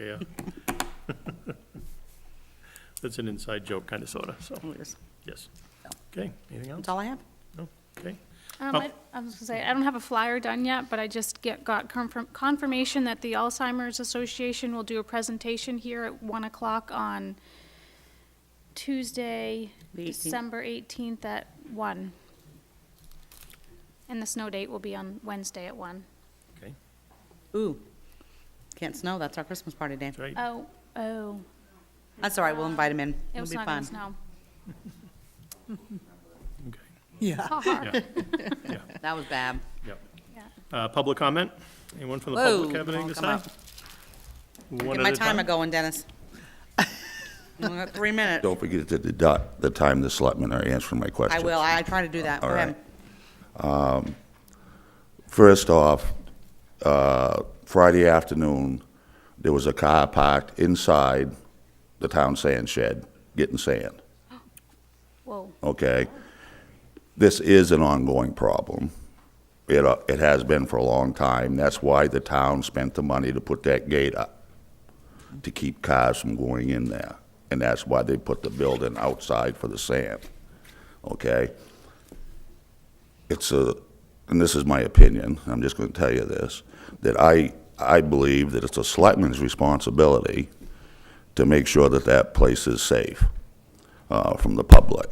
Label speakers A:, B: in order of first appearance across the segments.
A: okay. uh, That's an inside joke, kind of, sort of, so, yes. Okay, anything else?
B: That's all I have.
A: No? Okay.
C: Um,
A: Oh.
C: I, I was gonna say, I don't have a flyer done yet, but I just get, got confirm, confirmation that the Alzheimer's Association will do a presentation here at one o'clock on Tuesday,
B: The 18th.
C: December eighteenth at one. And the snow date will be on Wednesday at one.
A: Okay,
B: Ooh, can't snow, that's our Christmas party day.
A: that's right.
C: Oh, oh,
B: That's all right, we'll invite him in.
C: it
B: It'll
C: was
B: be
C: not gonna
B: fun.
C: snow.
A: Okay.
C: Ha ha.
A: Yeah,
B: That was bad.
A: yeah.
C: Yeah.
A: Uh, Public comment? Anyone from the
B: Whoa,
A: public have anything to
B: come
A: say?
B: up.
A: One
B: Get
A: at
B: my
A: a time.
B: timer going, Dennis. You only got Three minutes.
D: Don't forget to deduct the time the selectmen are answering my
B: I
D: questions.
B: will, I I try to do that.
D: All
B: Go ahead.
D: right. First off, uh, Friday afternoon, there was a car parked inside the town sand shed getting sand,
C: Whoa,
D: okay? This is an ongoing problem. It, uh, it has been for a long time. That's why the town spent the money to put that gate up, to keep cars from going in there. And that's why they put the building outside for the sand, okay? it's a, and this is my opinion, I'm just going to tell you this, that I, I believe that it's a selectman's responsibility to make sure that that place is safe uh, from the public,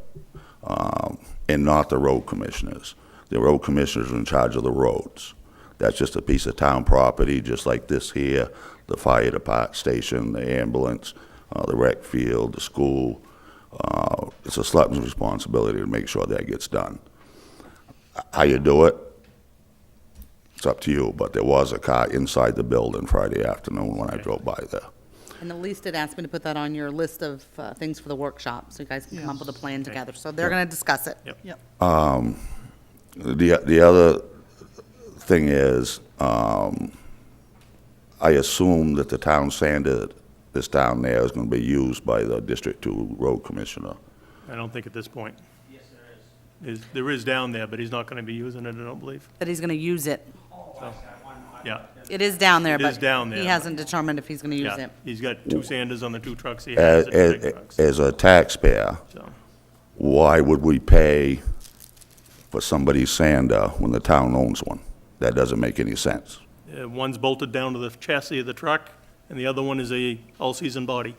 D: um, and not the road commissioners. The road commissioners are in charge of the roads. That's just a piece of town property, just like this here, the fire department station, the ambulance, uh, the rec field, the school. Uh, It's a selectman's responsibility to make sure that gets done how you do it, it's up to you, but there was a car inside the building Friday afternoon when I drove by there.
B: And the least did ask me to put that on your list of uh, things for the workshop, so you guys can come up with a plan together. So they're going to discuss it.
A: Yep.
E: Yep.
D: The, the other thing is, um, I assume that the town sander that's down there is gonna be used by the District Two Road Commissioner.
A: I don't think at this point. Yes, there is. There is down there, but he's not going to be using it, I don't believe.
B: That he's going to use it.
A: Oh, Yeah,
B: It is down there,
A: It
B: but.
A: is down
B: He
A: there.
B: hasn't determined if he's going to use
A: yeah.
B: it.
A: He's got two Sanders on the two trucks he has
D: As,
A: in the big
D: as,
A: trucks,
D: as a taxpayer,
A: so.
D: why would we pay for somebody's sander when the town owns one? That doesn't make any sense.
A: Uh, One's bolted down to the chassis of the truck, and the other one is a all-season body.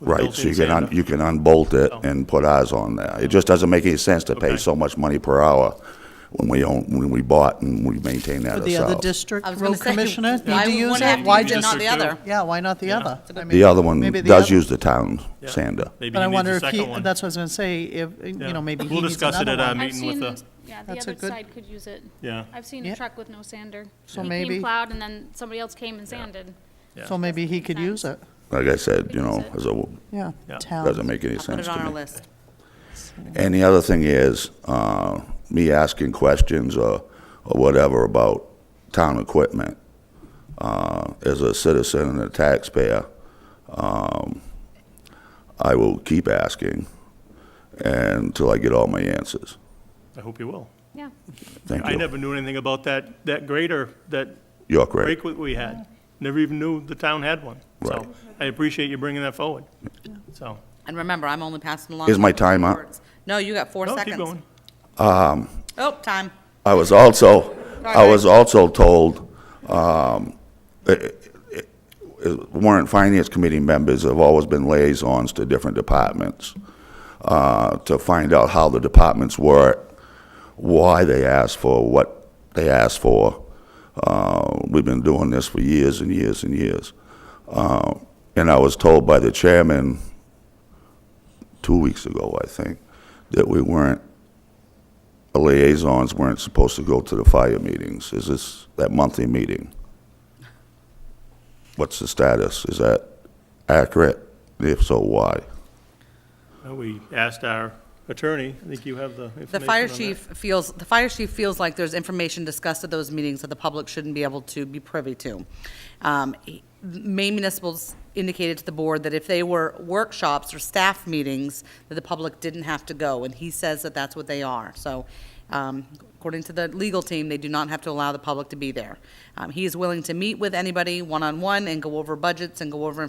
A: with a
D: Right,
A: built-in
D: so you can, un-
A: sander.
D: you can unbolt it
A: Oh.
D: and put ours on there. It just doesn't make any sense to
A: Okay.
D: pay so much money per hour when we own, when we bought and we maintain that
E: Would the other
D: ourselves.
E: district
B: I was going
E: road
B: to say.
E: commissioner
B: why
E: need to
B: would
E: use
B: one
E: it?
B: have to
E: Why
B: use it,
E: just,
B: Not the
A: District
B: other.
E: yeah, why not the other? I mean,
D: The other one
E: maybe the
D: does
E: other-
D: use the town
A: Yeah.
D: sander.
A: Maybe
E: But I
A: he needs
E: wonder
A: a
E: if he,
A: second one.
E: that's what I was going to say, if, you
A: Yeah.
E: know, maybe he
A: We'll
E: needs
A: discuss it
E: another
A: at our
E: one.
A: meeting.
C: I've
A: meeting with
C: seen,
A: the-
C: this- yeah, the
E: That's a
C: other
E: good-
C: side could use it.
A: Yeah.
C: I've seen a
E: Yeah.
C: truck with no sander.
E: So
C: He came
E: maybe-
C: plowed and then somebody else came and sanded.
E: So maybe he could use it,
D: Like I said, you know,
C: Use it.
D: as a,
E: yeah.
A: Yeah.
E: Town.
D: doesn't make
B: Oh.
D: any
B: I'll put
D: sense
B: it
D: to
B: on our
D: me.
B: list.
D: And the other thing is, uh, me asking questions or, or whatever about town equipment, uh, as a citizen and a taxpayer, um, I will keep asking until I get all my answers.
A: I hope you will.
C: Yeah.
D: Thank
A: I
D: you.
A: never knew anything about that, that grader, that
D: York Ray.
A: break that we had. Never even knew the town had one.
D: Right.
A: So I appreciate you bringing that forward. So,
B: And remember, I'm only passing along.
D: Is my
B: what the
D: time up?
B: words. No, you got four
A: no,
B: seconds.
A: keep going.
B: Oh, time.
D: I was also, I
B: Sorry.
D: was also told, um, it- it- it- warrant finance committee members have always been liaisons to different departments, uh, to find out how the departments work, why they ask for what they ask for. Uh, we've been doing this for years and years and years. Uh, and I was told by the chairman two weeks ago, I think, that we weren't the liaisons weren't supposed to go to the fire meetings. Is this that monthly meeting? What's the status? Is that accurate? If so, why?
A: Uh, We asked our attorney, I think you have the information
B: The fire
A: on that.
B: chief feels, the fire chief feels like there's information discussed at those meetings that the public shouldn't be able to be privy to. Um, he- Maine municipals indicated to the board that if they were workshops or staff meetings, that the public didn't have to go, and he says that that's what they are. So Um, According to the legal team, they do not have to allow the public to be there. Um, He is willing to meet with anybody one-on-one and go over budgets and go over information